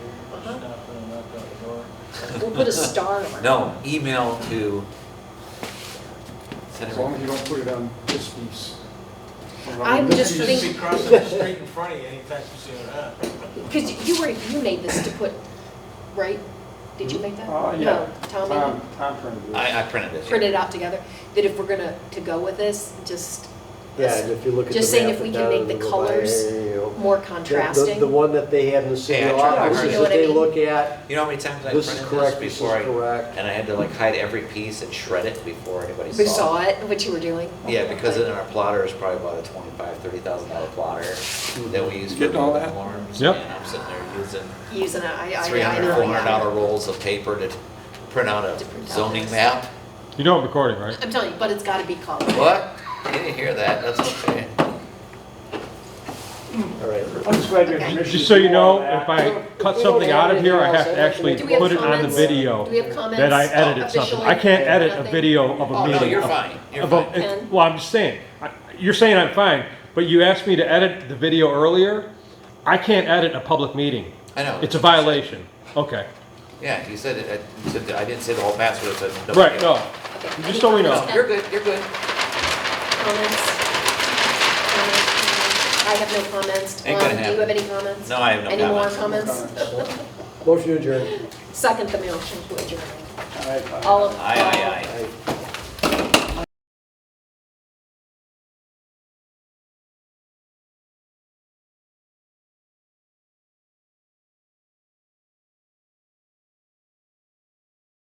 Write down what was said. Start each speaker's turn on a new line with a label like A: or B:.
A: We'll put a star on it.
B: No, email to.
C: As long as you don't put it on this piece. Or on
A: I'm
C: this
A: just
C: piece.
D: You just be
A: think-
D: crossing the street in front of you anytime you see it, huh?
A: Because you were, you made this to put, right? Did you make that?
C: Uh, yeah.
A: No,
C: Um,
A: Tom made
C: Tom,
A: it?
C: Tom printed this.
B: I, I printed this.
A: Print it out together, that if we're gonna, to go with this, just
E: Yeah, and if you look at the map.
A: Just saying if we
E: and
A: can
E: down
A: make
E: in
A: the
E: Levi,
A: colors
E: yeah, yeah, yeah. The-
A: more
E: the-
A: contrasting.
E: The one that they have in the city
B: Yeah, I tried
E: office
B: hard.
E: is
B: You know
E: that
A: what I
E: they
A: mean?
E: look at,
B: You know how many times I
E: this is
B: printed this
E: correct, this is
B: before I,
E: correct.
B: and I had to like hide every piece and shred it before anybody
A: We saw it, what you were doing.
B: Yeah, because in our plotter is probably about a twenty-five, thirty thousand dollar plotter that we use for
C: Getting all
B: building
C: that?
B: alarms.
F: Yep.
B: And I'm sitting there using
A: Using it, I, I,
B: three
A: I
B: hundred,
A: know.
B: four
A: yeah.
B: hundred dollar rolls of paper to print out a
A: To print out
B: zoning
A: this.
B: map.
F: You know I'm recording, right?
A: I'm telling you, but it's gotta be colored.
B: What? You didn't hear that, that's okay.
E: All right.
C: I'm just glad you had
A: Okay.
C: permission
F: Just
C: to
F: so you
C: do all
F: know,
C: that.
F: if I cut something out of here, I have to actually
A: Do we have
F: put it on the
A: comments?
F: video
A: Do we have comments? Oh,
F: that I edited something. I can't
A: Officially,
F: edit a
A: nothing?
F: video
A: Oh,
F: of a
B: Oh, no,
F: meeting.
B: you're
F: of-
B: fine, you're
F: of a-
B: fine.
A: fine.
F: Well, I'm just saying, I- you're saying I'm fine, but you asked me to edit the video earlier. I can't edit a public meeting.
B: I know.
F: It's a violation. Okay,
B: Yeah, you said it, I said that- I didn't say the whole mass, but I said. no,
F: right,
B: yeah.
F: no.
A: Okay,
F: Just
A: any
F: so we know.
A: comments,
B: No,
A: Ken?
B: you're good, you're good.
A: Comments? Comments? Comments? I have no comments.
B: Ain't gonna
A: Tom, Do you have
B: happen.
A: any comments?
B: No, I have no
A: Any more
B: comments.
A: comments?
E: Motion adjourned.
A: Second the motion to adjourn.
C: All right, bye.
A: All of.
B: Aye, aye, aye.
E: Aye.